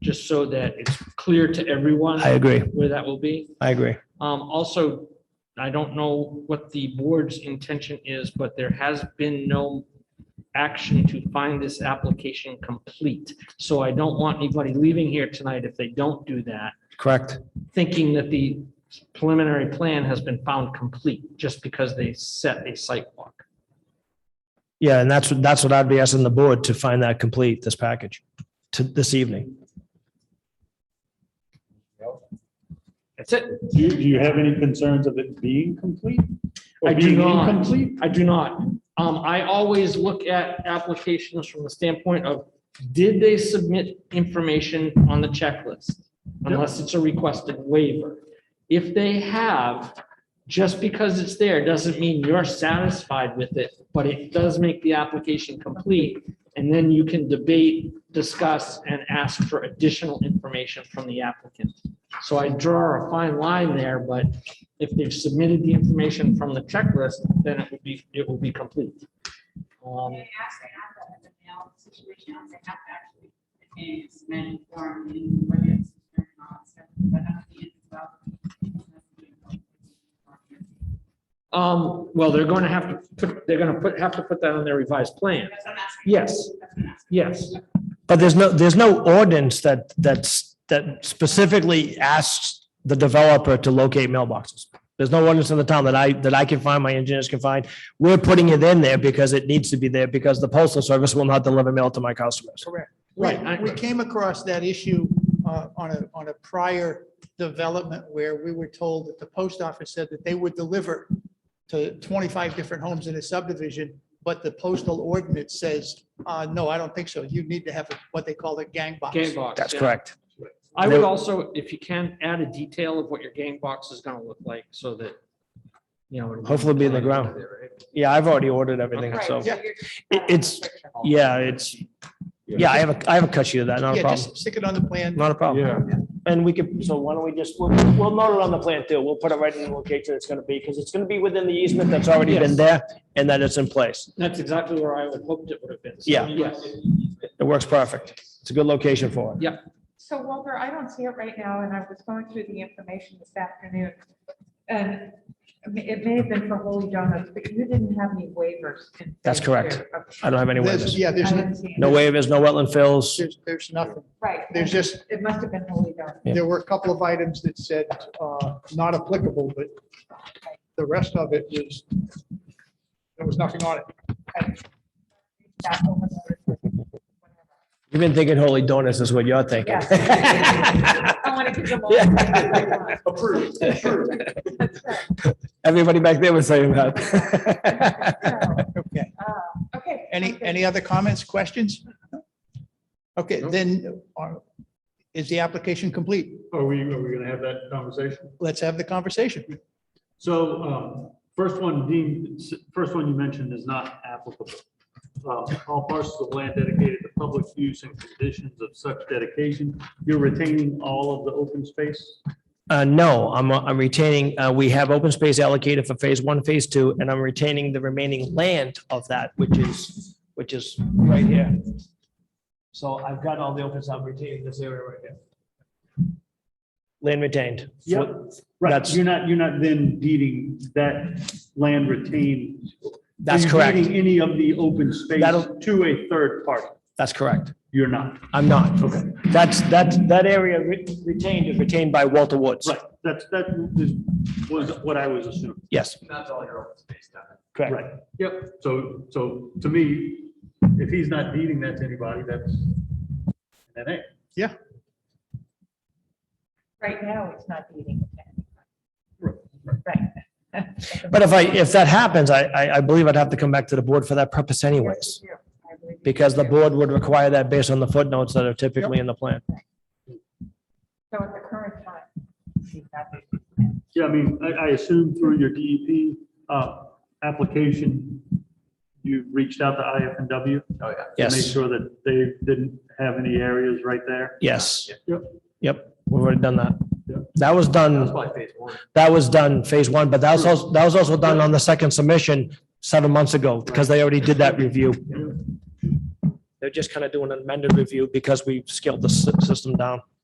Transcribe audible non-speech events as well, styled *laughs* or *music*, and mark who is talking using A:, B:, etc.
A: just so that it's clear to everyone
B: I agree.
A: where that will be.
B: I agree.
A: Um, also, I don't know what the board's intention is, but there has been no action to find this application complete. So I don't want anybody leaving here tonight if they don't do that,
B: Correct.
A: thinking that the preliminary plan has been found complete just because they set a site walk.
B: Yeah, and that's, what that's what I'd be asking the board to find that complete, this package, to this evening.
A: That's it.
C: Do you, do you have any concerns of it being complete? Or
A: I do
C: being
A: not.
C: Incomplete?
A: I do not. Um, I always look at applications from the standpoint of, did they submit information on the checklist? Unless it's a requested waiver. If they have, just because it's there doesn't mean you're satisfied with it, but it does make the application complete. And then you can debate, discuss, and ask for additional information from the applicant. So I draw a fine line there, but if they've submitted the information from the checklist, then it would be, it will be complete. Um,
D: They actually have that in the mail situation, they have to actually advance many form in whether it's. or not, so that has to be involved.
A: Um, well, they're going to have to, put they're going to put, have to put that on their revised plan.
D: That's what I'm asking.
A: Yes,
D: That's what I'm asking.
A: yes.
B: But there's no, there's no ordinance that, that's, that specifically asks the developer to locate mailboxes. There's no ordinance in the town that I, that I can find, my engineers can find. We're putting it in there because it needs to be there because the postal service will not deliver mail to my customers.
E: We,
A: Right, I-
E: we came across that issue uh, on a, on a prior development where we were told that the post office said that they would deliver to 25 different homes in a subdivision, but the postal ordinance says, uh, no, I don't think so. You need to have a- what they call a gang box.
A: Game box.
B: That's
A: yeah.
B: correct.
A: I would also, if you can, add a detail of what your game box is going to look like so that, you know. it'll
B: Hopefully be in the ground. Yeah, I've already ordered everything,
D: Right,
B: so,
D: so you're just-
B: It- it's- yeah, it's, yeah, I have a, I have a cut sheet of that, not a
E: Yeah,
B: problem,
E: just stick it on the plan.
B: not a problem.
F: Yeah,
B: And we could, so why don't we just, we'll, we'll note it on the plan too. We'll put it right in the location it's gonna be, because it's gonna be within the easement that's already been there and that it's in place.
A: That's exactly where I would hoped it would have been. So,
B: Yeah.
A: Yes.
B: It works perfect. It's a good location for it.
G: So Walter, I don't see it right now, and I was going through the information this afternoon. And it may have been for Holy Donuts, but you didn't have any waivers. in
B: That's
G: place
B: correct.
G: here. Okay.
B: I don't have any
E: There's,
B: waivers.
E: yeah,
G: I
E: there's,
G: didn't see it.
B: No waivers, no wetland fills.
E: there's, there's nothing.
G: Right.
E: There's just,
G: It must have been Holy Donuts.
B: Yeah.
E: there were a couple of items that said, uh, not applicable, but the rest of it was, there was nothing on it.
G: That one was-
B: You've been thinking holy donuts is what you're thinking.
G: I want to give them all.
B: Yeah.
C: Approved.
G: That's right.
B: *laughs* Everybody back there was saying that.
G: So,
E: Okay.
G: uh, Okay.
E: Any,
G: Okay.
E: any other comments, questions? Okay, then are- is the application complete?
C: Are we, are we gonna have that conversation?
E: Let's have the conversation.
C: So, um, first one, Dean, s- first one you mentioned is not applicable. Uh, all parcels of land dedicated to public use and conditions of such dedication, you're retaining all of the open space?
B: Uh, no, I'm, I'm retaining, uh, we have open space allocated for phase one, phase two, and I'm retaining the remaining land of that, which is, which is right here. So I've got all the open, so I'm retaining this area right here. Land retained.
C: Yep. Right,
B: That's-
C: you're not, you're not then deeding that land retained.
B: That's
C: Are you
B: correct.
C: deeding Any of the open space
B: That'll-
C: to a third party?
B: That's correct.
C: You're not.
B: I'm not.
C: Okay.
B: That's, that, that area re- retained is retained by Walter Woods.
C: Right, that's, that is- was what I was assuming.
B: Yes,
H: That's all your open space down there.
B: correct.
C: Right, yep. So, so to me, if he's not deeding that to anybody, that's, that ain't.
G: Right now, it's not eating.
C: Right,
G: Right.
B: But if I, if that happens, I, I, I believe I'd have to come back to the board for that purpose anyways,
G: I believe you.
B: because the board would require that based on the footnotes that are typically in the plan.
G: So at the current time. she's not doing
C: Yeah, I mean, I, I assume through your DEP, uh, application, you reached out to IFNW?
H: Oh, yeah.
C: To make
B: Yes,
C: sure that they didn't have any areas right there?
B: yes.
C: Yep.
B: Yep, we've already done that.
C: Yep.
B: That was
H: That's
B: done,
H: probably phase one.
B: that was done phase one, but that was also, that was also done on the second submission seven months ago, because they already did that review. They just kind of doing an amended review because we scaled the sy- system down.